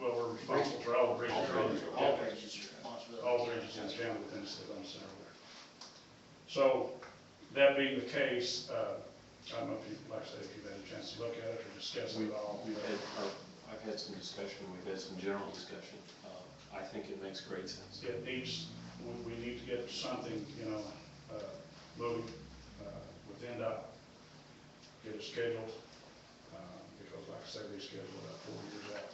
we're responsible for all the bridges. All bridges are responsible. all bridges in town within the Stevens Center there. So, that being the case, uh, I don't know if you, like I said, if you've had a chance to look at it or discuss it We- at all. We've had, uh, I've had some discussion, we've had some general discussion. Uh, I think it makes great sense. It needs, we, we need to get something, you know, uh, moving, uh, with NDOT, get it scheduled, uh, because like I said, they schedule about four years out.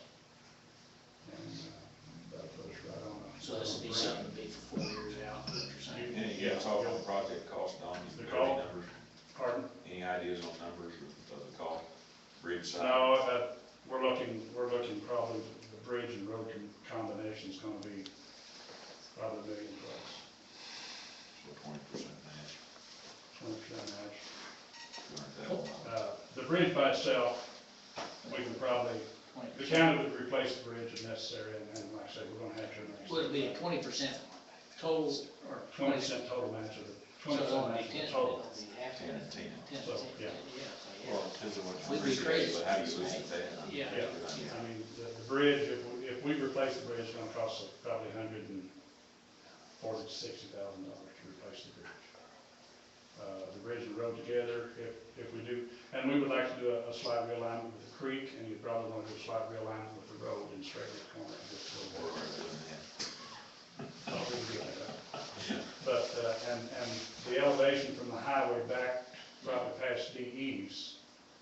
And, uh, that'll put us right on. a- So this would be something to be for four years out, what you're saying? Any, yeah, talk on project cost, Don, The you got cost? any numbers, Pardon? any ideas on numbers of- of the cost? Bridge side? No, uh, we're looking, we're looking probably, the bridge and road combination is gonna be probably a million plus, So twenty percent match, twenty percent match. two hundred thousand. Uh, The bridge by itself, we can probably, the county would replace the bridge if necessary, and and like I said, we're gonna have to. Would it be twenty percent total or Twenty twenty? So percent total match of the, it twenty percent would be match ten, of the it total. would be half Ten and of it. ten. Ten, So, ten, yeah. ten, yeah, Well, it depends on what. We'd be bridge it is, crazy. But how do you look at that? Yeah. Yeah, I mean, the, the bridge, if, we- if we replace the bridge, it's gonna cost us probably hundred and forty to sixty thousand dollars to replace the bridge. Uh, the bridge and road together, if, if we do, and we would like to do a, a slight realignment with the creek, and you'd probably wanna do a slight realignment with the road and straighten the corner just a Or little we're more. doing that. But, uh, and, and the elevation from the highway back probably past DE's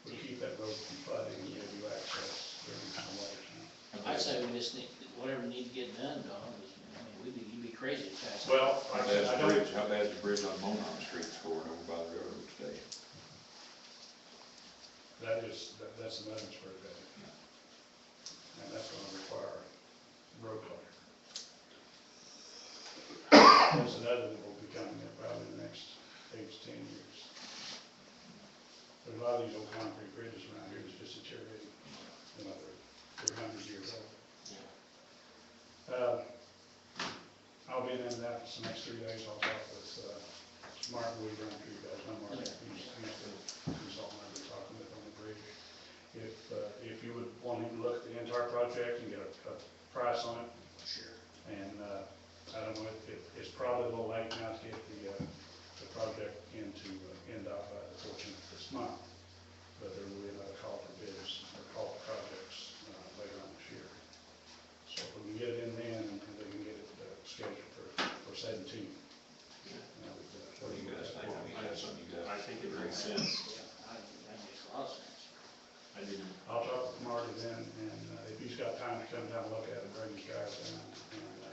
would keep that road from flooding and give you access during the water time. yeah. I'd say we just need, whatever need to get done, Don, is, I mean, we'd be, you'd be crazy if that's. Well, How I said, bad's I the don't, bridge, how bad's the bridge on Monon Street scored over by the railroad today? that is, that- that's an Evansburg value. And that's gonna require road closure. That's another that will be coming up probably in the next eight to ten years. But a lot of these old concrete bridges around here is just deteriorating, you know, they're, they're hundred years old. Yeah. Uh, I'll be in and out for the next three days, I'll talk with, uh, Martin Weaver, I'm sure you guys know Martin, he's, he's the consultant I've been talking with on the bridge. If, uh, if you would want him to look at the entire project and get a, a price on it, Sure. and, uh, I don't know, it, it's probably a little late now to get the, uh, the project into, uh, end up by the fourteenth of this month, but there will be another call for bids, or call for projects, uh, later on this year. So if we can get it in then, and we can get it uh, scheduled for, for seventeen. uh, What do you guys think? I mean, that's something you guys. I think it makes sense. Yeah, I, that makes a lot of sense. I didn't, I'll talk with Marty then, and uh, if he's got time to come down and look at it, bring his guys down and uh,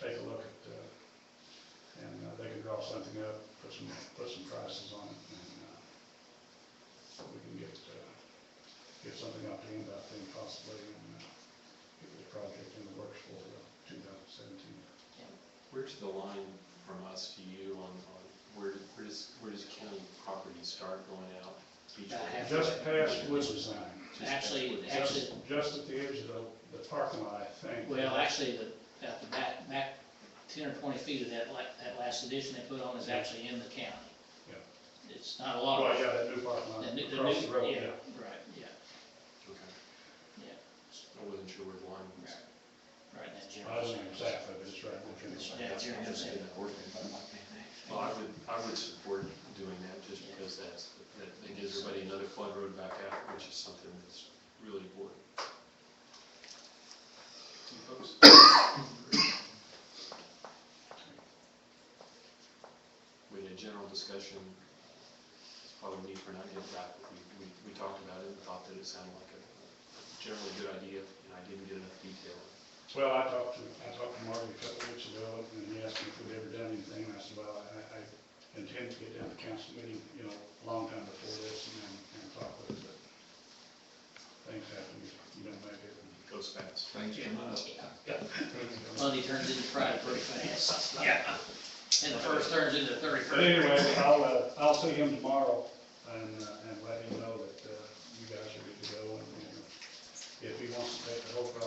take a look at, uh, and uh, they can draw something up, put some, put some prices on it, and uh, we can get, uh, get something out to him about then possibly, and uh, get the project in the works for uh, two thousand seventeen. Where's the line from us to you on, on, where, where does, where does county property start going out? Beach About Road? half. Just past Woods Design, Just- Actually, actually, just, just at the edge of the, the parking lot, I think. well, actually, the, at the back, back ten or twenty feet of that, la- that last addition they put on is actually in the county. Yeah. It's not a lot of. Well, yeah, that new parking lot The new- the across new- the road, yeah, yeah. Right, yeah, Okay, yeah, I wasn't sure where the line was. right, right, in that I general. don't know exactly, but it's right within the Yeah, it's your percent. Well, I would, I would support doing that just because that's, that that gives everybody another flood road back out, which is something that's really important. You folks? We had a general discussion, it's probably need for not getting back, but we, we, we talked about it and thought that it sounded like a generally good idea, and I didn't get enough detail. Well, I talked to, I talked to Marty a couple of weeks ago, and he asked me if we'd ever done anything, and I said, well, I, I intend to get down to council meeting, you know, a long time before this, and, and talk with it, but things happen, you don't make it. It goes fast. Thanks for Monday turns into Friday pretty fast. Yeah. And the first turns into thirty-first. But anyway, I'll, uh, I'll see him tomorrow, and, uh, and let him know that, uh, you guys are good to go, and, you know, if he wants to take the whole project